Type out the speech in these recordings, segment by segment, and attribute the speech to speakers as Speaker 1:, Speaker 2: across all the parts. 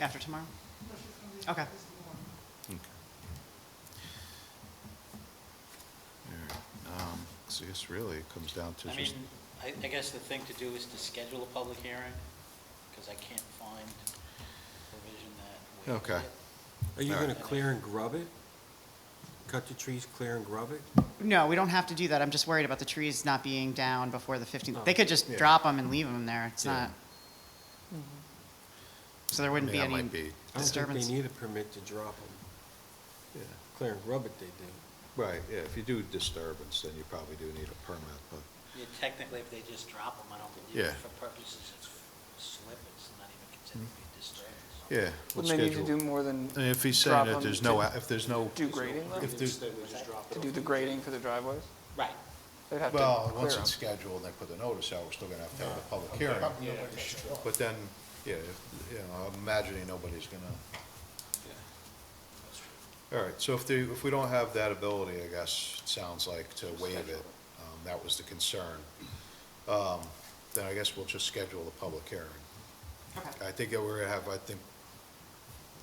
Speaker 1: After tomorrow? Okay.
Speaker 2: Okay. All right, um, So I guess really it comes down to
Speaker 3: I mean,
Speaker 2: just,
Speaker 3: I, I guess the thing to do is to schedule a public hearing, because I can't find provision that. would-
Speaker 2: Okay.
Speaker 4: Are you
Speaker 2: Alright.
Speaker 4: gonna clear and grub it? Cut the trees, clear and grub it?
Speaker 1: No, we don't have to do that. I'm just worried about the trees not being down before the 15th. They could just
Speaker 2: Yeah.
Speaker 1: drop them and leave them there. It's
Speaker 4: Yeah.
Speaker 1: not. So there
Speaker 2: I mean,
Speaker 1: wouldn't be
Speaker 2: that
Speaker 1: any
Speaker 2: might be,
Speaker 4: I don't think
Speaker 1: disturbance.
Speaker 4: they need a permit to drop them.
Speaker 2: yeah,
Speaker 4: Clear and grub it, they do.
Speaker 2: right, yeah, if you do disturbance, then you probably do need a permit, but,
Speaker 3: Yeah, Technically, if they just drop them, I don't think,
Speaker 2: Yeah.
Speaker 3: even for purposes of slip, it's not even considered to be disturbance.
Speaker 2: yeah. we'll
Speaker 5: Wouldn't they need to
Speaker 2: schedule-
Speaker 5: do more than
Speaker 2: And If he's saying
Speaker 5: drop
Speaker 2: that
Speaker 5: them
Speaker 2: there's
Speaker 5: to
Speaker 2: no, a- if there's no,
Speaker 5: Do grading though?
Speaker 2: if there's,
Speaker 5: To do the grading for the driveways?
Speaker 3: Right.
Speaker 5: They'd have to
Speaker 2: well,
Speaker 5: clear
Speaker 2: once
Speaker 5: 'em.
Speaker 2: it's scheduled, they put the notice out, we're still gonna have to have a public hearing. But then, yeah, if- you know, I'm imagining nobody's gonna, all right, so if they, if we don't have that ability, I guess, it sounds like, to waive it, um, that was the concern, um, then I guess we'll just schedule the public hearing.
Speaker 1: Okay.
Speaker 2: I think that we're gonna have, I think,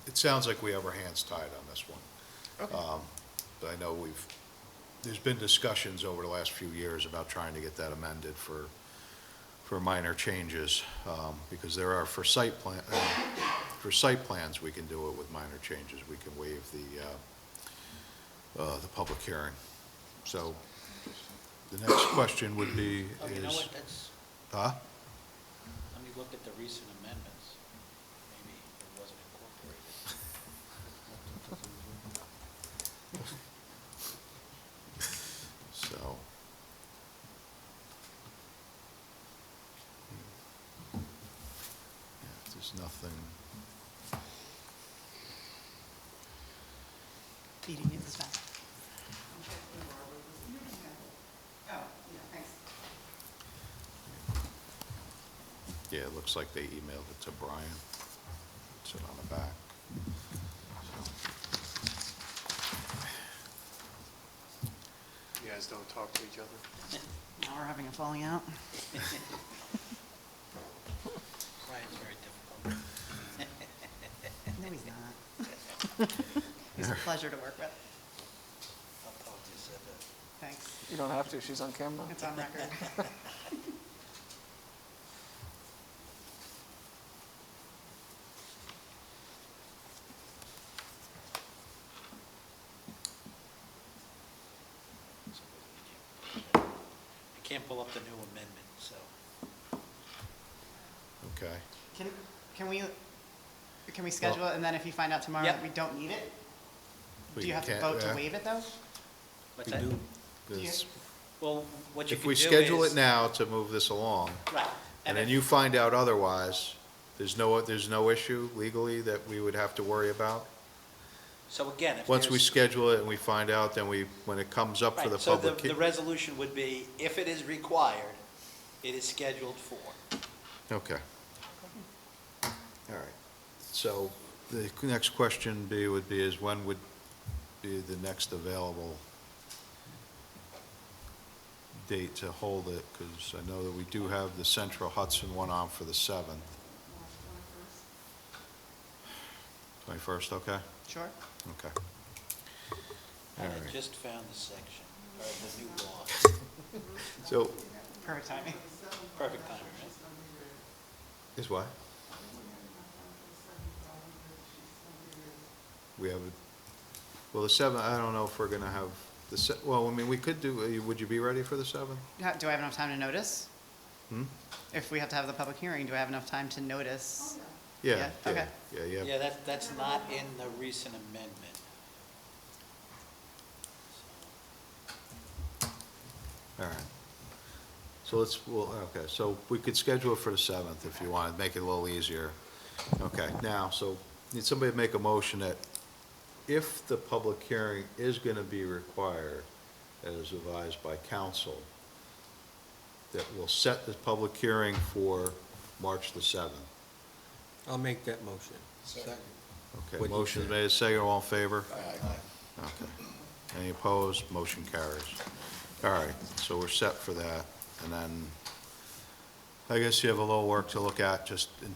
Speaker 2: it sounds like we have our hands tied on this one. Um, But I know we've, there's been discussions over the last few years about trying to get that amended for, for minor changes, um, because there are, for site plan, uh, for site plans, we can do it with minor changes. We can waive the, uh, uh, the public hearing. So the next question would be
Speaker 3: Oh, you know
Speaker 2: is,
Speaker 3: what, that's,
Speaker 2: huh?
Speaker 3: let me look at the recent amendments. Maybe it wasn't incorporated.
Speaker 2: So. Yeah, if There's nothing,
Speaker 1: Beating it is fast. Oh,
Speaker 2: yeah, it looks like they emailed it to Brian. It's on the back.
Speaker 6: You guys don't talk to each other?
Speaker 1: Now we're having a falling out.
Speaker 3: Brian's very difficult.
Speaker 1: No, he's not. He's a pleasure to work with.
Speaker 3: I'll probably just said that.
Speaker 1: Thanks.
Speaker 5: You don't have to, she's on camera.
Speaker 1: It's on record.
Speaker 3: I can't pull up the new amendment, so.
Speaker 2: Okay,
Speaker 1: Can, can we, can we schedule it and then if you find out tomorrow that
Speaker 3: Yep.
Speaker 1: we don't need it?
Speaker 2: We
Speaker 1: Do you have to
Speaker 2: can't-
Speaker 1: vote to
Speaker 2: yeah.
Speaker 1: waive it though?
Speaker 3: What's that?
Speaker 2: because
Speaker 3: Well, what you
Speaker 2: if
Speaker 3: can do
Speaker 2: we
Speaker 3: is.
Speaker 2: schedule it now to move this along,
Speaker 3: Right.
Speaker 2: and then
Speaker 3: if-
Speaker 2: you find out otherwise, there's no, there's no issue legally that we would have to worry about?
Speaker 3: So again, if
Speaker 2: Once we
Speaker 3: there's-
Speaker 2: schedule it and we find out, then we, when it comes up for
Speaker 3: Right,
Speaker 2: the
Speaker 3: so the,
Speaker 2: public.
Speaker 3: the
Speaker 2: hea-
Speaker 3: resolution would be, if it is required, it is scheduled for.
Speaker 2: Okay. All right. So the next question be, would be is when would be the next available date to hold it? Because I know that we do have the Central Hudson one on for the 7th. 21st, okay?
Speaker 1: Sure.
Speaker 2: Okay.
Speaker 3: And
Speaker 2: All right.
Speaker 3: I just found the section, or the new law,
Speaker 2: So,
Speaker 1: Perfect timing.
Speaker 3: perfect timing, right?
Speaker 2: is what? We have, a well, the 7th, I don't know if we're going to have, the, se- well, I mean, we could do, uh, would you be ready for the 7th?
Speaker 1: Ha- Do I have enough time to notice?
Speaker 2: Hmm?
Speaker 1: If we have to have the public hearing, do I have enough time to notice?
Speaker 2: Yeah,
Speaker 1: Yeah,
Speaker 2: yeah,
Speaker 1: okay.
Speaker 2: yeah, yeah.
Speaker 3: Yeah, that, that's not in the recent amendment.
Speaker 2: All right. So let's, well, okay, so we could schedule it for the 7th if you want, make it a little easier. Okay, now, so need somebody to make a motion that if the public hearing is going to be required as advised by council, that we'll set the public hearing for March the 7th.
Speaker 4: I'll make that motion.
Speaker 2: Okay,
Speaker 4: What you
Speaker 2: motion's
Speaker 4: said.
Speaker 2: made, second, all in favor? Okay. Any opposed? Motion carries. All right, so we're set for that. And then, I guess you have a little work to look at, just in